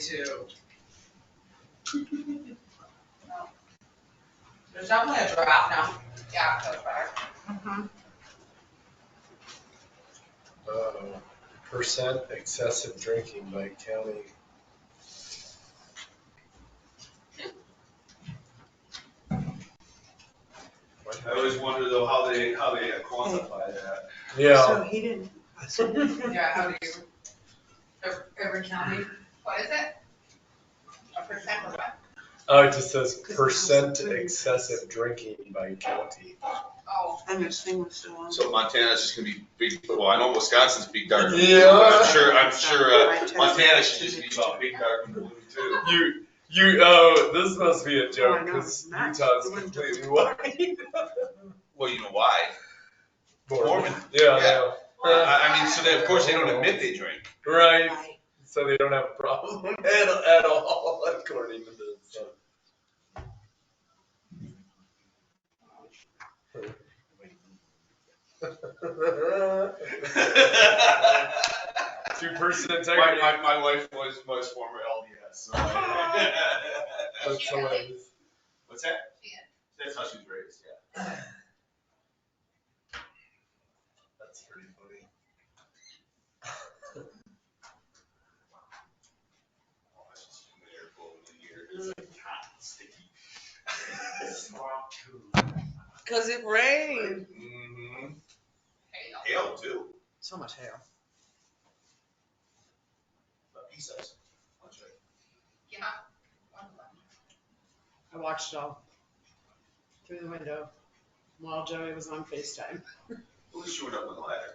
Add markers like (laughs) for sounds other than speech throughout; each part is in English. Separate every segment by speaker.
Speaker 1: too. There's definitely a draft now.
Speaker 2: Yeah, so far.
Speaker 3: Uh, Percent excessive drinking by county. What
Speaker 4: I always wonder though how they, how they quantify that.
Speaker 3: Yeah,
Speaker 5: So he didn't,
Speaker 1: Yeah, how do you, ev- every county,
Speaker 2: What is it? A percent of what?
Speaker 3: oh, it just says percent excessive drinking by county.
Speaker 2: Oh,
Speaker 5: and this thing was still on.
Speaker 6: So Montana's just gonna be big, well, I know Wisconsin's big dark.
Speaker 3: Yeah.
Speaker 6: I'm sure, I'm sure, uh, Montana should just be about
Speaker 4: Big dark and blue too.
Speaker 3: You, you, oh, this must be a
Speaker 5: joke,
Speaker 3: joke,
Speaker 5: I know, 'cause
Speaker 3: because
Speaker 5: it's not.
Speaker 3: Utah's
Speaker 5: Utah's It wouldn't do
Speaker 3: completely
Speaker 5: completely
Speaker 3: white. (laughs)
Speaker 6: Well, you know why? Mormon.
Speaker 3: Yeah,
Speaker 6: Yeah.
Speaker 4: Uh,
Speaker 3: yeah.
Speaker 6: Uh, I, I mean, so they, of course, they don't admit they drink.
Speaker 3: Right, so they don't have a problem (laughs) at, at all, according to this. (laughs) so. Two-person
Speaker 4: (laughs) My,
Speaker 3: integrity.
Speaker 4: my, my wife was, was former LDS, so.
Speaker 6: (laughs)
Speaker 3: That's hilarious.
Speaker 4: What's that?
Speaker 2: she is.
Speaker 4: That's how she was raised, yeah.
Speaker 3: That's pretty funny.
Speaker 4: Oh, I was just in the air blowing in here. It's like hot and sticky.
Speaker 7: Cause it rained.
Speaker 4: Mhm.
Speaker 6: Mm-hmm.
Speaker 2: Hey, no.
Speaker 4: Hail too.
Speaker 7: So much hail.
Speaker 4: But he says, I'll check.
Speaker 2: Yeah. One of them.
Speaker 7: I watched it all through the window while Joey was on FaceTime.
Speaker 4: At least you went up on the ladder.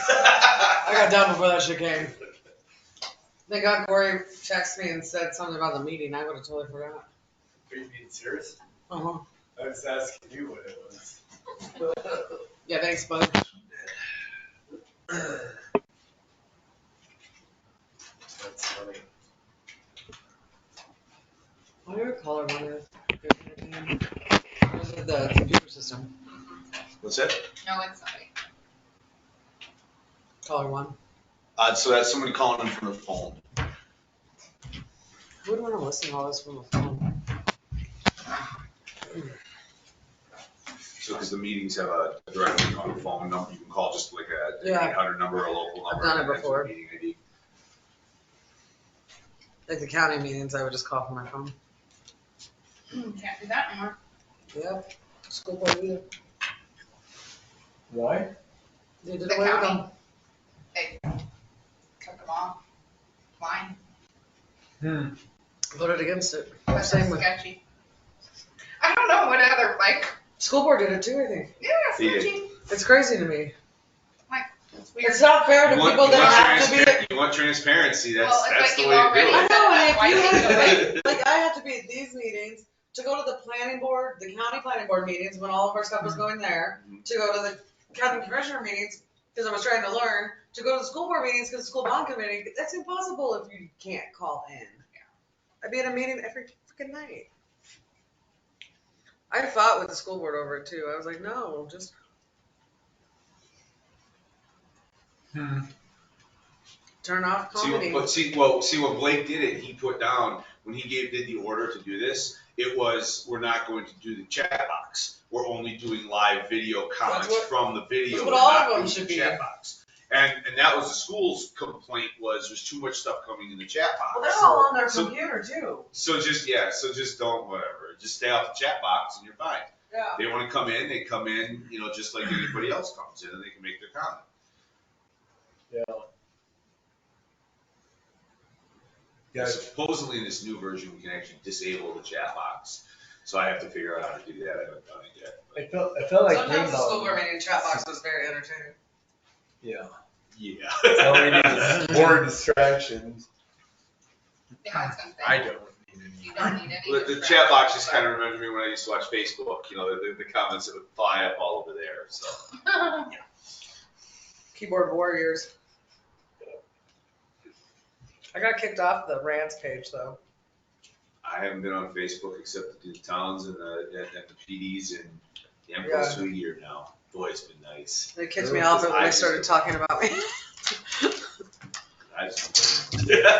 Speaker 7: I got down before that shit came. Thank God Corey texted me and said something about the meeting. I would have totally forgot.
Speaker 3: Are you being serious?
Speaker 7: Uh-huh.
Speaker 3: I was asking you what it was.
Speaker 7: Yeah, thanks, bud.
Speaker 3: That's funny.
Speaker 7: What do you call it? Rhonda? Was it The computer system,
Speaker 6: (laughs) What's that?
Speaker 2: No, it's somebody.
Speaker 7: caller one.
Speaker 6: Uh, so that's somebody calling in from the phone.
Speaker 7: Who would want to listen to all this from a phone?
Speaker 6: So, because the meetings have a directly on the phone number, you can call just like a
Speaker 7: Yeah.
Speaker 6: eight hundred number, a local number.
Speaker 7: done it
Speaker 6: and enter
Speaker 7: before.
Speaker 6: meeting ID.
Speaker 7: Like the county meetings, I would just call from my phone.
Speaker 2: Can't do that anymore.
Speaker 7: Yep. School board either.
Speaker 3: Why?
Speaker 7: They did
Speaker 2: The
Speaker 7: away with
Speaker 2: county.
Speaker 7: them.
Speaker 2: They took them all. Mine.
Speaker 3: Hmm.
Speaker 7: Voted against it.
Speaker 2: That's
Speaker 7: Same with,
Speaker 2: sketchy. I don't know what other, like,
Speaker 7: school board did it too, I think.
Speaker 2: yeah,
Speaker 6: He did.
Speaker 2: sketchy.
Speaker 7: It's crazy to me.
Speaker 2: It's weird.
Speaker 7: It's not fair to
Speaker 6: You want-
Speaker 7: people
Speaker 6: you want
Speaker 7: that have to be,
Speaker 6: transparency- You want transparency,
Speaker 2: Well,
Speaker 6: that's,
Speaker 2: it's
Speaker 6: that's
Speaker 2: like
Speaker 6: the
Speaker 2: you
Speaker 6: way to
Speaker 2: already-
Speaker 6: do
Speaker 7: I
Speaker 6: it.
Speaker 7: know, and if
Speaker 2: Why
Speaker 7: you
Speaker 2: take
Speaker 7: have
Speaker 2: it
Speaker 7: to
Speaker 2: away?
Speaker 7: wait
Speaker 6: (laughs)
Speaker 7: Like I have to be at these meetings, to go to the planning board, the county planning board meetings, when all of our stuff was going there,
Speaker 6: Mhm.
Speaker 7: to go to the county commissioner meetings, cause I was trying to learn, to go to the school board meetings, cause the school bond committee, that's impossible if you can't call in. I'd be at a meeting every freaking night. I fought with the school board over it too, I was like, no, just,
Speaker 3: Hmm.
Speaker 7: turn off
Speaker 6: See, what-
Speaker 7: comedy.
Speaker 6: but see, well, see what Blake did it, he put down, when he gave, did the order to do this, it was, we're not going to do the chat box. We're only doing live video comments
Speaker 7: what-
Speaker 6: from the video.
Speaker 7: that's what
Speaker 6: we're
Speaker 7: all
Speaker 6: not
Speaker 7: of them
Speaker 6: doing
Speaker 7: should
Speaker 6: the
Speaker 7: be.
Speaker 6: Chat box. And, and that was the school's complaint was there's too much stuff coming in the chat box.
Speaker 7: Well, they're all on their
Speaker 6: So-
Speaker 7: computer too.
Speaker 6: So just, yeah, so just don't, whatever, just stay off the chat box and you're fine.
Speaker 7: Yeah.
Speaker 6: They wanna come in, they come in, you know, just like anybody else comes in and they can make their comment.
Speaker 3: Yeah.
Speaker 6: Yeah,
Speaker 3: Yeah,
Speaker 6: supposedly in this new version, we can actually disable the chat box. So I have to figure out how to do that. I haven't done it yet. but-
Speaker 3: I felt, I felt like
Speaker 7: Sometimes the school board
Speaker 3: Greenbaum.
Speaker 7: meeting chat box was very entertaining.
Speaker 3: Yeah.
Speaker 6: Yeah.
Speaker 3: So we need is (laughs)
Speaker 6: (laughs)
Speaker 3: more distractions.
Speaker 2: Yeah, it's something.
Speaker 3: I don't need any.
Speaker 2: You don't need any.
Speaker 6: The, the chat box just kind of reminded me when I used to watch Facebook, you know, the, the comments that would fly up all over there, so.
Speaker 2: (laughs) of.
Speaker 7: keyboard warriors. I got kicked off the rants page though.
Speaker 6: I haven't been on Facebook except to do the towns and the, and the PDs and the Emperor's New Year now. Boy, it's been nice.
Speaker 7: They kicked me off when they started talking about me.
Speaker 6: I just-